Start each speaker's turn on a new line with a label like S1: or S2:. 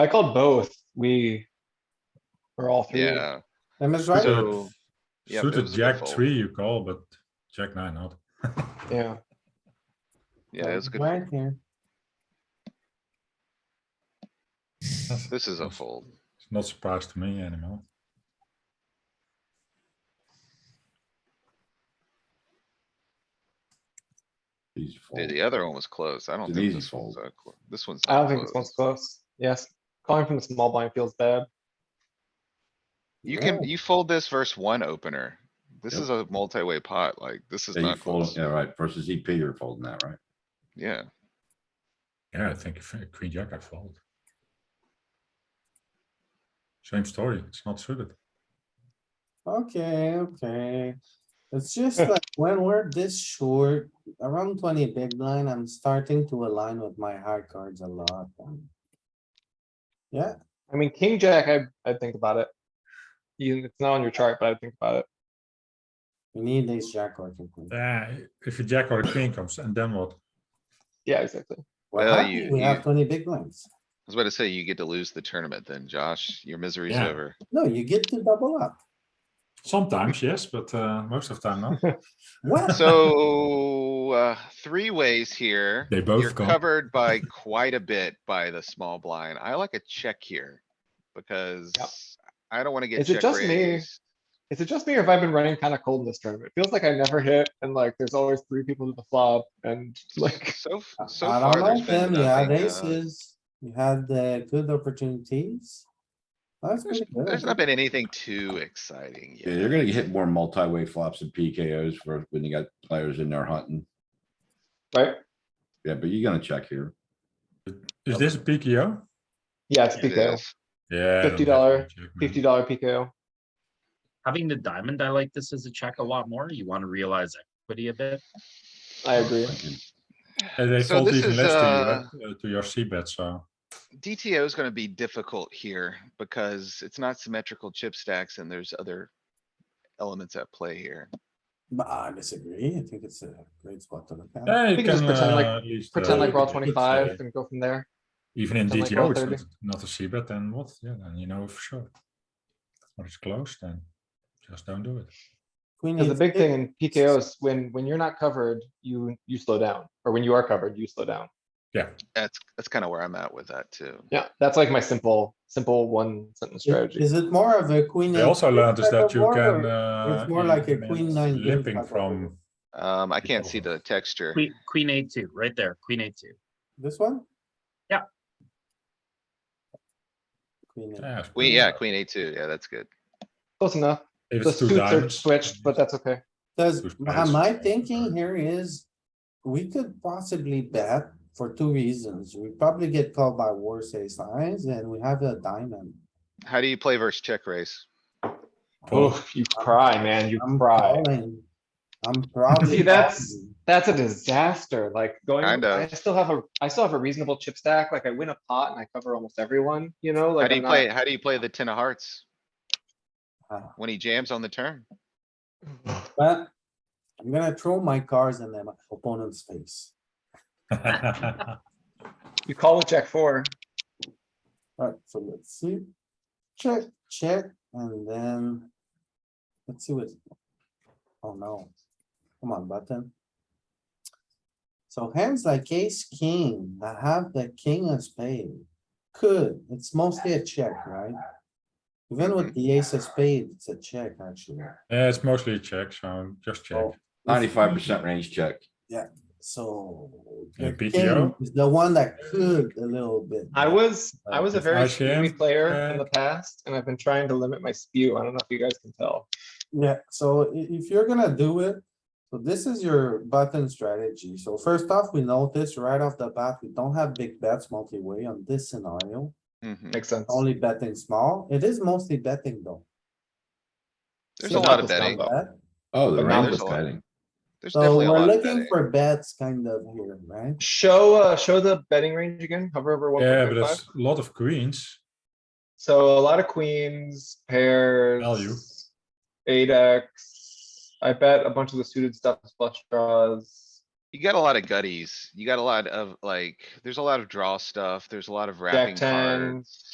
S1: I called both. We were all three.
S2: Yeah,
S1: Am I right?
S3: So-
S2: so. yeah, it
S3: Suited
S2: was a good
S3: jack
S2: fold.
S3: three, you call, but jack nine not.
S1: Yeah.
S2: Yeah, it's good.
S1: Right here.
S2: fold. This is a fold.
S3: It's not surprise to me anymore.
S4: He's
S2: The,
S4: fold.
S2: the other one was close. I don't
S4: An
S2: think
S4: easy
S2: this one's,
S4: fold.
S2: a clo- this one's.
S1: I
S2: not
S1: don't think this
S2: close.
S1: one's close. Yes, calling from the small blind feels bad.
S2: You can,
S4: Yeah.
S2: you fold this versus one opener. This
S4: Yep.
S2: is a multi-way pot, like, this is
S4: Yeah, you
S2: not
S4: fold,
S2: close.
S4: yeah, right, versus EP, you're folding that, right?
S2: Yeah,
S3: Yeah, I think if, uh, queen jack I fold. Same story, it's not suited.
S5: Okay, okay. It's just like when we're this short, around twenty big blind, I'm starting to align with my high cards a lot. um, Yeah,
S1: I mean, king jack, I, I'd think about it. You, it's not on your chart, but I'd think about it.
S5: we need ace jack or king queen.
S3: Yeah, Uh, if you jack or queen comes and then what?
S1: Yeah, exactly.
S5: We're
S2: Well,
S5: happy
S2: you-
S5: We have
S2: you-
S5: twenty big blinds.
S2: I was about to say, you get to lose the tournament then, Josh. Your misery's
S3: Yeah.
S2: over.
S5: No, you get to double up.
S3: Sometimes, yes, but uh, most of the time not.
S5: What?
S2: So, uh, three ways here.
S3: They both
S2: You're
S3: go.
S2: covered by quite a bit by the small blind. I like a check here. Because I don't wanna get
S1: Is it
S2: check
S1: just me?
S2: raised.
S1: Is it just me or have I been running kind of cold in this tournament? It feels like I never hit and like there's always three people to the flop and like,
S2: So, f- so
S5: I don't
S2: far, there's
S5: like
S2: been
S5: them. You had
S2: nothing, uh,
S5: aces, you had the good opportunities. That's
S2: There's
S5: pretty good. I
S2: there's not
S5: think.
S2: been anything too exciting
S4: Yeah, you're
S2: yet.
S4: gonna hit more multi-way flops and PKOs for when you got players in there hunting.
S1: right?
S4: Yeah, but you're gonna check here.
S3: Is this a PKO?
S1: Yeah, it's
S2: It
S1: PKO,
S2: is.
S3: Yeah. then
S1: $50,
S3: definitely check, man.
S1: fifty dollar PKO.
S6: Having the diamond, I like this as a check a lot more. You want to realize equity a bit.
S1: I agree.
S3: And Uh, they
S2: So
S3: fold
S2: this
S3: even
S2: is,
S3: less to
S2: uh,
S3: you, right? Uh, to your C bet, so.
S2: DTO is gonna be difficult here because it's not symmetrical chip stacks and there's other elements at play here.
S5: But I disagree. I think it's a great spot to look at.
S3: Yeah, you
S1: think just
S3: can,
S1: pretend like-
S3: uh, at least,
S1: Pretend
S3: uh,
S1: like we're all
S3: it's, uh,
S1: twenty-five and go from there.
S3: Even in
S1: Pretend like
S3: DTO,
S1: we're all
S3: it's not not a C bet, then what? Yeah, then you know for sure. When it's close, then just don't do it.
S5: Queen
S1: Cause the
S5: eight
S1: big
S5: six.
S1: thing in PKOs, when, when you're not covered, you, you slow down, or when you are covered, you slow down.
S2: That's, that's kinda where I'm at with that too.
S1: Yeah, that's like my simple, simple one sentence strategy.
S5: Is it more of a queen?
S3: They
S5: eight
S3: also
S5: six
S3: learned is
S5: type
S3: that
S5: of
S3: you
S5: board,
S3: can,
S5: or-
S3: uh.
S5: it's more like a
S3: even
S5: queen
S3: it's
S5: nine game type
S3: Limping
S5: of
S3: from,
S5: board.
S2: Um, I can't
S5: Oh.
S2: see the texture.
S6: Queen, queen eight two, right there, queen eight two.
S5: This one?
S6: Yeah.
S5: Queen eight.
S3: yeah. it's
S2: Queen,
S3: queen-
S2: yeah, queen A two, yeah, that's good.
S1: Close enough.
S3: If
S1: The
S3: it's two
S1: suits are
S3: diamonds.
S1: switched, but that's okay.
S5: Does,
S3: Who's
S5: my-
S3: best?
S5: my thinking here is, we could possibly bet for two reasons. We probably get called by worse ace nines and we have a diamond.
S2: How do you play versus check raise?
S1: Oh, you cry, man, you
S5: I'm
S1: cry.
S5: calling. I'm probably.
S1: See, that's-
S5: calling.
S1: That's a disaster, like going,
S2: Kinda.
S1: I still have a, I still have a reasonable chip stack, like I win a pot and I cover almost everyone, you know,
S2: How
S1: like
S2: do
S1: I'm
S2: you play,
S1: not.
S2: how do you play the ten of hearts?
S5: Ah.
S2: When he jams on the turn?
S5: But I'm gonna throw my cards in the opponent's face.
S1: You call with jack four,
S5: Alright, so let's see. Check, check, and then. Let's see what. Oh no. Come on, button. So hands like ace, king, I have the king of spade. Could, it's mostly a check, right? Even with the ace of spade, it's a check, actually.
S3: Yeah, it's mostly a check, so just check.
S5: Oh.
S4: Ninety-five percent range check.
S5: So.
S3: Yeah,
S5: the
S3: PTO?
S5: king is The one that could a little bit.
S1: I was, I was a
S3: If
S1: very
S3: I
S1: spewy
S3: jam,
S1: player in the
S3: uh,
S1: past, and I've been trying to limit my spew, I don't know if you guys can tell.
S5: Yeah, so i- if you're gonna do it, so this is your button strategy. So first off, we notice right off the bat, we don't have big bets multi-way on this scenario.
S2: Mhm.
S1: Makes sense.
S5: Only betting small. It is mostly betting though.
S2: There's
S5: So
S2: a
S1: not
S2: lot of
S1: this time,
S2: betting.
S1: though.
S5: Bet.
S4: Oh, the
S2: But
S4: range
S2: there's
S4: is
S2: a lot.
S4: betting.
S2: There's
S5: So
S2: definitely a
S5: we're
S2: lot of
S5: looking
S2: betting.
S5: for bets kind of here, right?
S1: Show, uh, show the betting range again, hover over one
S3: Yeah,
S1: point
S3: but
S1: three five.
S3: it's a lot of queens.
S1: So a lot of queens, pairs.
S3: Value.
S1: Eight X. I bet a bunch of the suited stuff is flush draws.
S2: You got a lot of gutties. You got a lot of like, there's a lot of draw stuff. Therew There's a lot of
S1: Jack
S2: wrapping
S1: ten.
S2: cards.